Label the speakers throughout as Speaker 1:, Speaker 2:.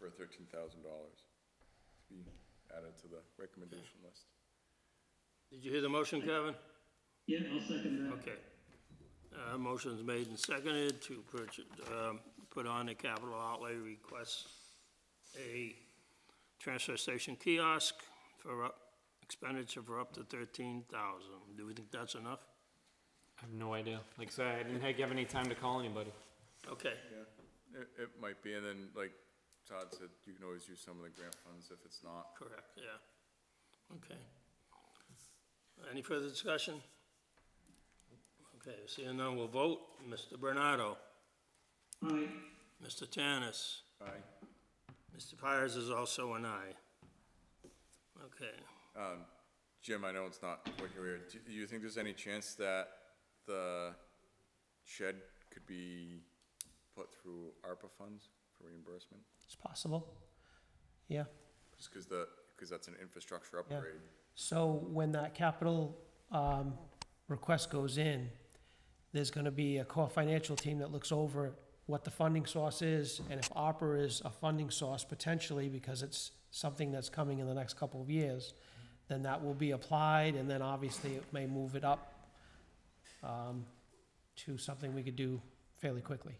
Speaker 1: thirteen thousand dollars to be added to the recommendation list.
Speaker 2: Did you hear the motion, Kevin?
Speaker 3: Yeah, I'll second that.
Speaker 2: Okay. Uh, motion's made and seconded to purchase, um, put on the capital outlay request a transfer station kiosk for up, expenditure for up to thirteen thousand. Do we think that's enough?
Speaker 4: I have no idea. Like I said, I didn't heck have any time to call anybody.
Speaker 2: Okay,
Speaker 1: Yeah. It, it might be, and then like Todd said, you can always use some of the grant funds if it's not.
Speaker 2: correct, yeah. Okay. Any further discussion? Okay, seeing none, we'll vote. Mr. Bernardo,
Speaker 3: Aye,
Speaker 2: Mr. Tanis.
Speaker 1: Aye.
Speaker 2: Mr. Pires is also an aye. Okay,
Speaker 1: Jim, I know it's not what you were, do you think there's any chance that the shed could be put through ARPA funds for reimbursement?
Speaker 5: It's possible. Yeah.
Speaker 1: Just because the, because that's an infrastructure upgrade.
Speaker 5: So when that capital um, request goes in, there's going to be a core financial team that looks over what the funding source is and if ARPA is a funding source potentially because it's something that's coming in the next couple of years, then that will be applied and then obviously it may move it up um, to something we could do fairly quickly.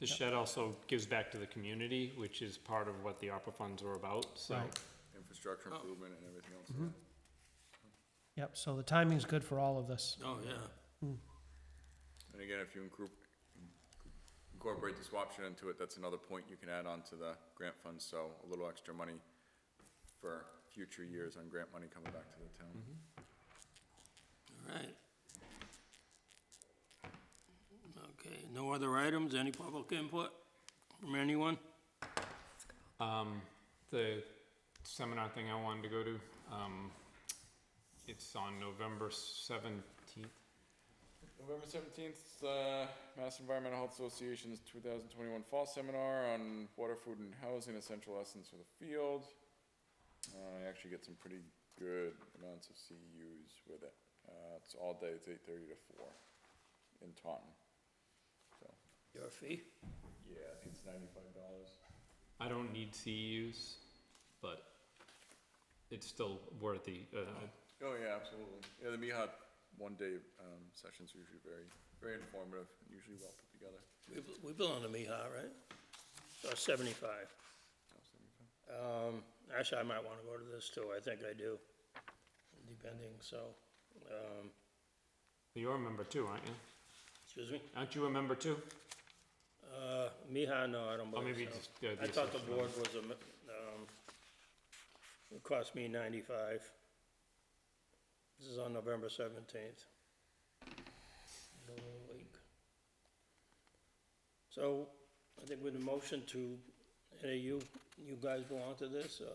Speaker 4: The shed also gives back to the community, which is part of what the ARPA funds were about, so.
Speaker 5: Right.
Speaker 1: infrastructure improvement and everything else.
Speaker 5: Yep, so the timing's good for all of this.
Speaker 2: oh, yeah,
Speaker 1: And again, if you incru- incorporate the swap option into it, that's another point you can add on to the grant fund, so a little extra money for future years on grant money coming back to the town.
Speaker 2: all right. Okay, no other items, any public input from anyone?
Speaker 4: Um, the seminar thing I wanted to go to, um, it's on November seventeenth.
Speaker 6: November seventeenth, uh, Mass Environmental Health Association's two thousand twenty-one Fall Seminar on Water, Food, and Housing: Essential Lessons for the Field. Uh, I actually get some pretty good amounts of CEUs with it. Uh, it's all day. It's eight thirty to four in Taunton. So
Speaker 2: Your fee?
Speaker 1: Yeah, I think it's ninety-five dollars.
Speaker 4: I don't need CEUs, but it's still worthy, uh,
Speaker 1: Oh, yeah, absolutely. Yeah, the MIHA one-day, um, sessions are usually very, very informative, and usually well put together.
Speaker 2: We, we belong to Mihai, right? Or seventy-five. Um, actually, I might wanna go to this too, I think I do, depending, so, um,
Speaker 4: you're a member too, aren't you?
Speaker 2: excuse me?
Speaker 4: Aren't you a member too?
Speaker 2: Uh, Mihai, no, I don't
Speaker 4: Or
Speaker 2: believe so.
Speaker 4: maybe just, uh, the
Speaker 2: I thought the
Speaker 4: associate
Speaker 2: board was a, mi- um, it cost me ninety-five. This is on November seventeenth. So, I think with the motion to, hey, you, you guys belong to this, uh,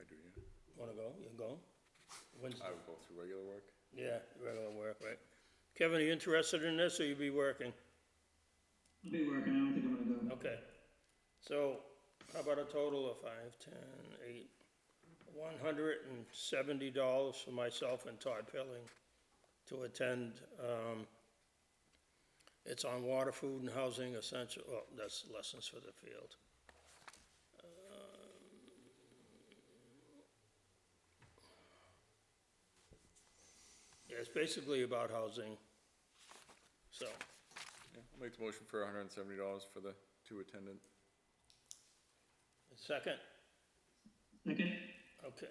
Speaker 1: I do, yeah.
Speaker 2: wanna go, you go? When's,
Speaker 1: I would go through regular work.
Speaker 2: yeah, regular work, right? Kevin, are you interested in this, or you be working?
Speaker 3: I'll be working, I don't think I'm gonna go.
Speaker 2: Okay, so how about a total of five, ten, eight, one hundred and seventy dollars for myself and Todd Pilling to attend, um, it's on water, food, and housing essential, oh, that's lessons for the field. Um, Yeah, it's basically about housing, so,
Speaker 1: Yeah, I'll make the motion for hundred and seventy dollars for the two attendant.
Speaker 2: second?
Speaker 3: Second?
Speaker 2: Okay,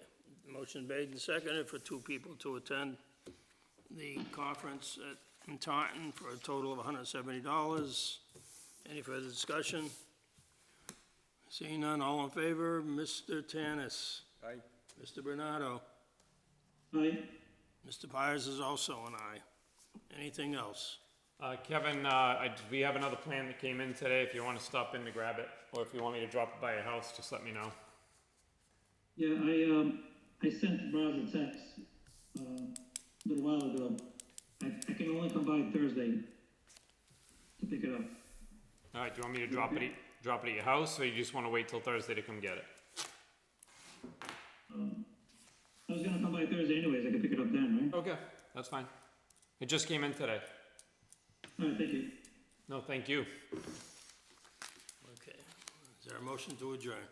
Speaker 2: motion made and seconded for two people to attend the conference at in Taunton for a total of hundred and seventy dollars. Any further discussion? Seeing none, all in favor, Mr. Tanis,
Speaker 1: Aye.
Speaker 2: Mr. Bernardo,
Speaker 3: Aye,
Speaker 2: Mr. Pires is also an aye. Anything else?
Speaker 4: Uh, Kevin, uh, I, we have another plan that came in today. If you wanna stop in to grab it, or if you want me to drop it by your house, just let me know.
Speaker 3: yeah, I, um, I sent Roz a text, um, a little while ago. I, I can only come by Thursday to pick it up.
Speaker 4: All right, do you want me to drop it, at- drop it at your house, or you just wanna wait till Thursday to come get it?
Speaker 3: I was gonna come by Thursday anyways, I could pick it up then,
Speaker 4: Okay, that's fine. It just came in today.
Speaker 3: right? Alright, thank you.
Speaker 4: No, thank you.
Speaker 2: Okay, is there a motion to adjourn?